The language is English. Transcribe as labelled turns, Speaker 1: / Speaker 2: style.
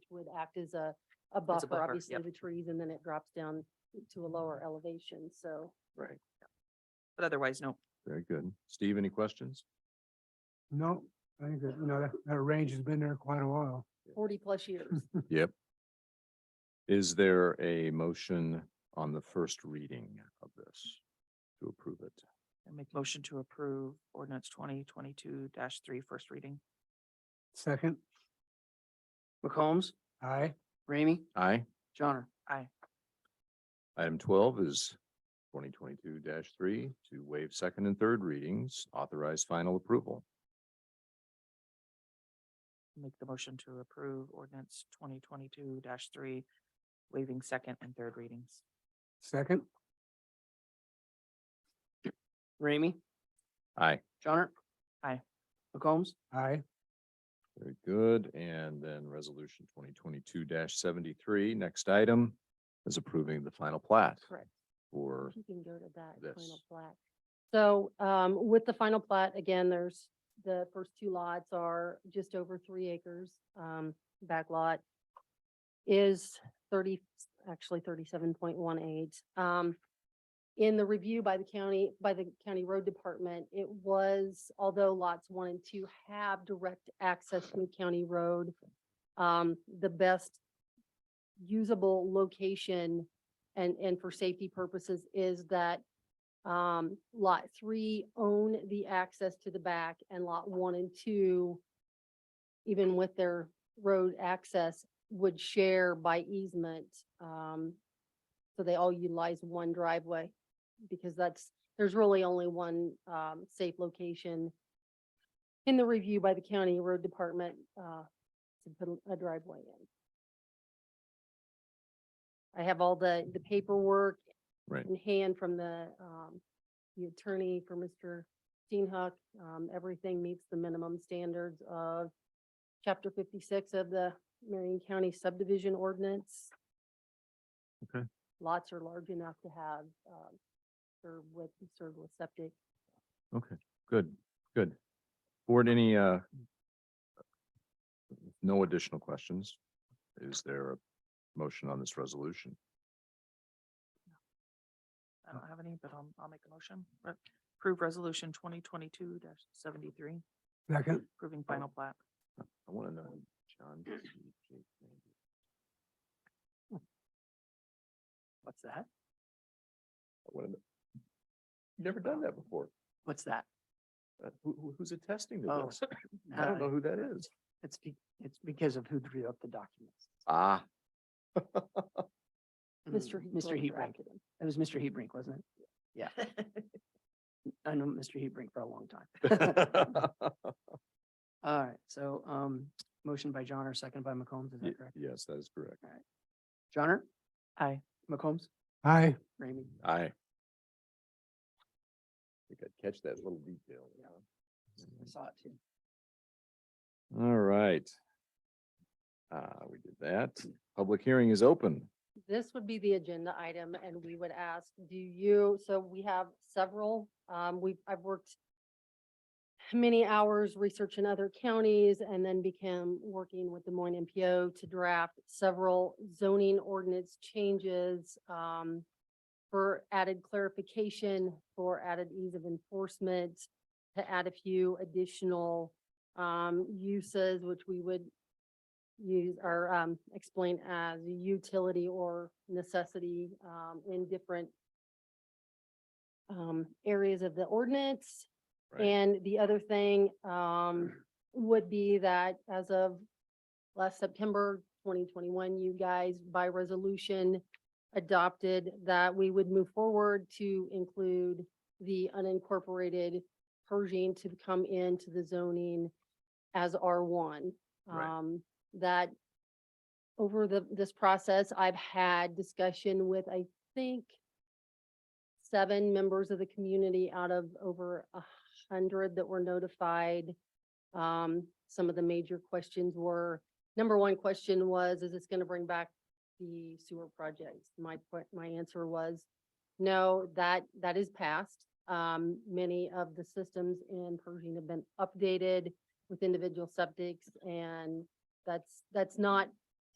Speaker 1: act as a, a buffer,
Speaker 2: buffer,
Speaker 1: Mm-hmm. obviously,
Speaker 2: yep.
Speaker 1: the trees, and then it drops down to a lower elevation, so.
Speaker 2: Right. But otherwise, no.
Speaker 3: Very good. Steve, any questions?
Speaker 4: No, I think that, you know, that, that range has been there quite a while.
Speaker 1: forty plus years.
Speaker 3: Yep. Is there a motion on the first reading of this to approve it?
Speaker 2: I make motion to approve ordinance twenty twenty-two dash three, first reading.
Speaker 4: Second,
Speaker 5: McCombs,
Speaker 4: aye,
Speaker 5: Ramey,
Speaker 3: Aye.
Speaker 5: Johnner.
Speaker 2: Aye.
Speaker 3: Item twelve is twenty twenty-two three to waive second and third readings, authorize final approval.
Speaker 2: Make the motion to approve ordinance twenty twenty-two dash three, waiving second and third readings.
Speaker 4: second,
Speaker 5: Ramey,
Speaker 3: Aye.
Speaker 5: Johnner.
Speaker 2: Aye.
Speaker 5: McCombs,
Speaker 4: aye,
Speaker 3: Very good. And then resolution twenty twenty-two seventy-three, next item is approving the final plat
Speaker 2: Correct.
Speaker 3: for,
Speaker 1: You can go to that final
Speaker 3: this.
Speaker 1: plat. So um, with the final plat, again, there's, the first two lots are just over three acres. Um, back lot is thirty, actually thirty-seven point one eight. Um, in the review by the county, by the county road department, it was, although lots one and two have direct access from county road, um, the best usable location and, and for safety purposes is that um, lot three own the access to the back and lot one and two, even with their road access, would share by easement. Um, so they all utilize one driveway because that's, there's really only one, um, safe location in the review by the county road department, uh, to put a driveway in. I have all the, the paperwork
Speaker 3: Right.
Speaker 1: in hand from the, um, the attorney for Mr. Steenhook. Um, everything meets the minimum standards of chapter fifty-six of the Marion County subdivision ordinance.
Speaker 3: Okay.
Speaker 1: Lots are large enough to have, um, served with, served with septic.
Speaker 3: okay, good, good. Board, any, uh, no additional questions? Is there a motion on this resolution?
Speaker 2: I don't have any, but I'll, I'll make a motion. Re- Approve resolution twenty twenty-two dash seventy-three,
Speaker 4: second,
Speaker 2: approving final plat.
Speaker 3: I want to know,
Speaker 5: Hmm.
Speaker 3: John.
Speaker 2: What's that?
Speaker 3: Never done that before.
Speaker 2: What's that?
Speaker 3: Uh, Who, who- who's attesting to
Speaker 5: Oh,
Speaker 3: this? I don't
Speaker 5: uh,
Speaker 3: know who that is.
Speaker 5: It's be, it's because of who drew up the documents.
Speaker 3: Ah.
Speaker 1: Mr.
Speaker 5: Mm, Mr.
Speaker 1: Hebrink
Speaker 5: Hebrink.
Speaker 1: drafted them.
Speaker 5: That was Mr. Hebrink, wasn't it? Yeah. I know Mr. Hebrink for a long time. All right, so, um, motion by Johnner, second by McCombs, is
Speaker 3: Ye-
Speaker 5: that correct?
Speaker 3: Yes, that is correct.
Speaker 5: Johnner,
Speaker 2: Aye.
Speaker 5: McCombs,
Speaker 4: aye,
Speaker 5: Ramey.
Speaker 3: I think I'd catch that little detail.
Speaker 5: Yeah. I saw it too.
Speaker 3: All right. Uh, we did that. Public hearing is open.
Speaker 1: This would be the agenda item and we would ask, do you, so we have several, um, we, I've worked many hours researching other counties and then became working with Des Moines MPO to draft several zoning ordinance changes, um, for added clarification, for added ease of enforcement, to add a few additional, um, uses, which we would use or um explain as utility or necessity um in different um areas of the ordinance.
Speaker 3: Right.
Speaker 1: And the other thing um would be that as of last September twenty twenty-one, you guys by resolution adopted that we would move forward to include the unincorporated Pershing to come into the zoning as R one.
Speaker 3: Right.
Speaker 1: Um, that over the, this process, I've had discussion with, I think, seven members of the community out of over a hundred that were notified. Um, some of the major questions were, number one question was, is this gonna bring back the sewer projects? My, que- my answer was, no, that, that is passed. Um, many of the systems in Pershing have been updated with individual septics and that's, that's not